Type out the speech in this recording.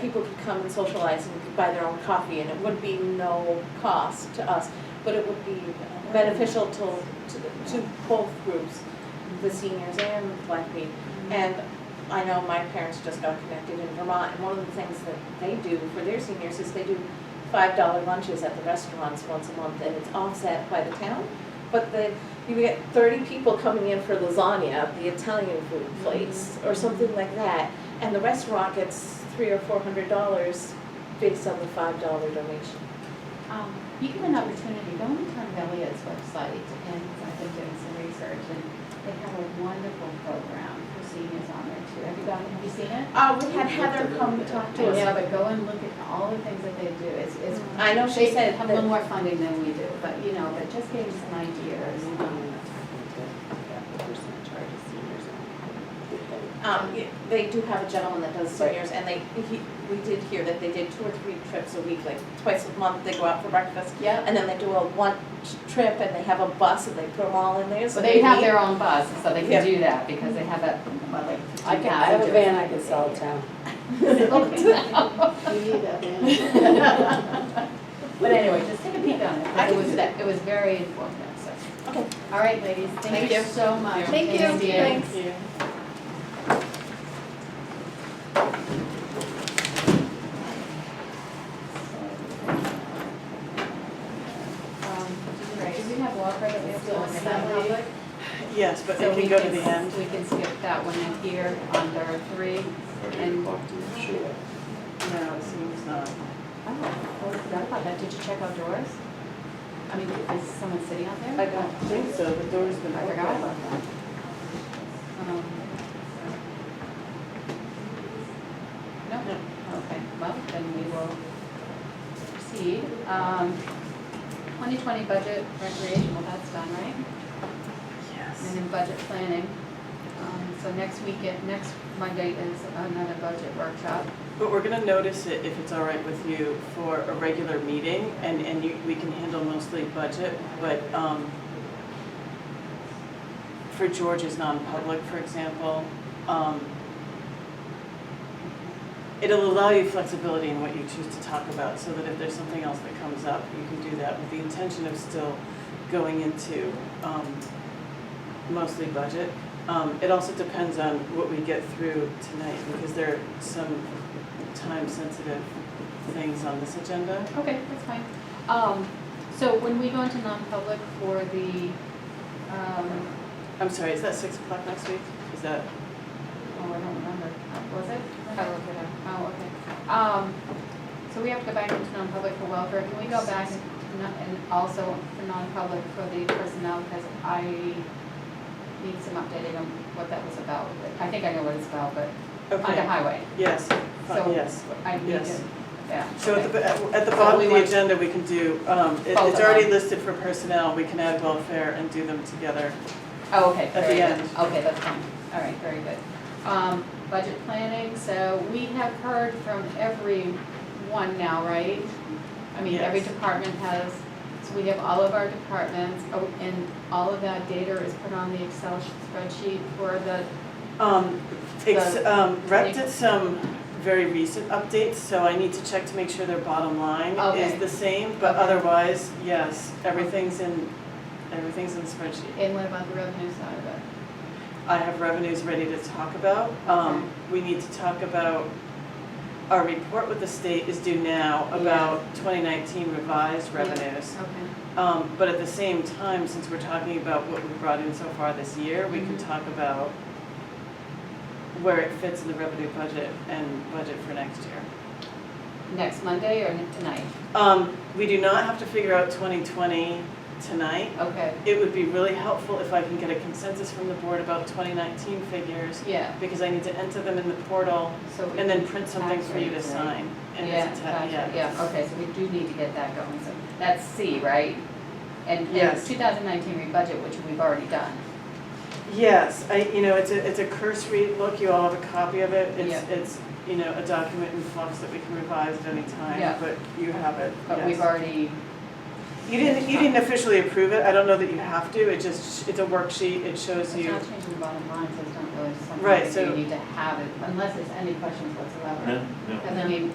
people could come and socialize and could buy their own coffee, and it would be no cost to us, but it would be beneficial to, to, the- to both groups, the seniors and the black people. And I know my parents just got connected in Vermont, and one of the things that they do for their seniors is they do five dollar lunches at the restaurants once a month, and it's offset by the town. But the, you get thirty people coming in for lasagna, the Italian food place, or something like that, and the restaurant gets three or four hundred dollars based on the five dollar donation. Um, You give an opportunity, go on Tom Elliott's website, and I've been doing some research, and they have a wonderful program for seniors on there too. Have you gone, have you seen it? Uh, we had Heather come talk to Yeah, us. but go and look at all the things that they do, it's, it's. Mm-hmm. I know she they said Have a that- little more funding than we do, but, you know, but just getting some ideas. um, Um, y- they do have a gentleman that does seniors, and they, he, we did hear that they did two or three trips a week, like twice a month, they go out for breakfast, Yeah, And then they do a one trip and they have a bus and they put them all in there, so so they they have meet. their own bus, so they Yeah. can do that, because they have that, what, like fifteen I can, I have a passengers. van I can sell town. But anyway, just take a peek on it, I it can was, do that. it was very informative, so. Okay. All right, ladies, thank Thank you you. so much. Thank you. Thank you. Thanks. Um, Do we have Walker that we have to look at? Assembly. Yes, but So it we can go to the end. We can skip that one in here under three. Eight o'clock, I'm sure. No, it seems not. Oh, I forgot about that, did you check out doors? I mean, is someone sitting out there? I don't think so, the door's been I open. forgot about that. Um, No, No. okay, well, then we will proceed. Um, 2020 budget recreational, that's done, right? And Yes. then budget planning. Um, So next weekend, next Monday is another budget workshop. But we're gonna notice it, if it's all right with you, for a regular meeting, and, and you, we can handle mostly budget, but, um, for George's non-public, for example, um, it'll allow you flexibility in what you choose to talk about, so that if there's something else that comes up, you can do that with the intention of still going into, um, mostly budget. Um, it also depends on what we get through tonight, because there are some time-sensitive things on this agenda. Okay, that's fine. Um, So when we go into non-public for the, um, I'm sorry, is that six o'clock next week? Is that, Oh, I don't remember. Was it? I'll look it up. Oh, okay. Um, so we have to go back into non-public for welfare. Can we go back and non- and also for non-public for the personnel? Because I need some updating on what that was about. I think I know what it's about, but on Oh, the okay, highway. yes, So- fine, yes. I need Yes. to, yeah. So at the, at at the So bottom we of the want- agenda, we can do, um, it- Both it's of already them. listed for personnel, we can add welfare and do them together. Oh, okay, At the very good. end. Okay, that's fine. All right, very good. Um, budget planning, so we have heard from everyone now, right? I mean, every Yes. department has, so we have all of our departments, oh, and all of that data is put on the Excel spreadsheet for the, Um, ex- The- um, Rep did some very recent updates, so I need to check to make sure their bottom line Okay. is the same, but Okay. otherwise, yes, everything's in, everything's in spreadsheet. and what about the revenue side of it? I have revenues ready to talk about. Um, we need to talk about, our report with the state is due now about twenty nineteen revised Yeah. revenues. Okay, Um, but at the same time, since we're talking about what we've brought in so far this year, we can Mhm. talk about where it fits in the revenue budget and budget for next year. next Monday or tonight? Um, we do not have to figure out twenty twenty tonight. Okay, It would be really helpful if I can get a consensus from the board about twenty nineteen figures, yeah, because I need to enter them in the portal so. we- and then print something for you to Tax rates, right? sign. And Yeah, it's a ta- gotcha, yeah, okay, so we do need to get that going, so that's C, right? And, and Yes. two thousand nineteen rebudget, which we've already done. Yes, I, you know, it's a, it's a cursory look, you all have a copy of it, it's, Yeah. it's, you know, a document in flux that we can revise at any Yeah. time, but you have it, But we've yes. already, You didn't, you didn't officially approve it, I don't know that you have to, it just, it's a worksheet, it shows it's you, not changing the bottom line, so it's not really something Right, that so- you need to have it, unless there's any questions whatsoever. No, no. And then we